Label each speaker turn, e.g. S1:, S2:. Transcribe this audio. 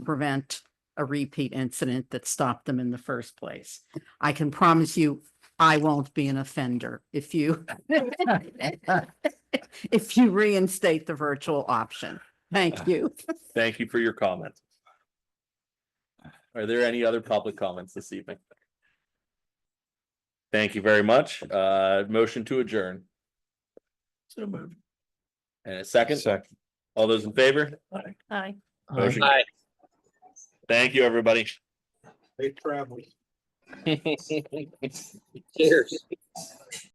S1: prevent a repeat incident that stopped them in the first place. I can promise you, I won't be an offender if you if you reinstate the virtual option. Thank you.
S2: Thank you for your comments. Are there any other public comments this evening? Thank you very much. Uh, motion to adjourn. So moved. And a second,
S3: Second.
S2: all those in favor?
S4: Hi.
S2: Motion. Thank you, everybody.
S3: They travel.
S5: Cheers.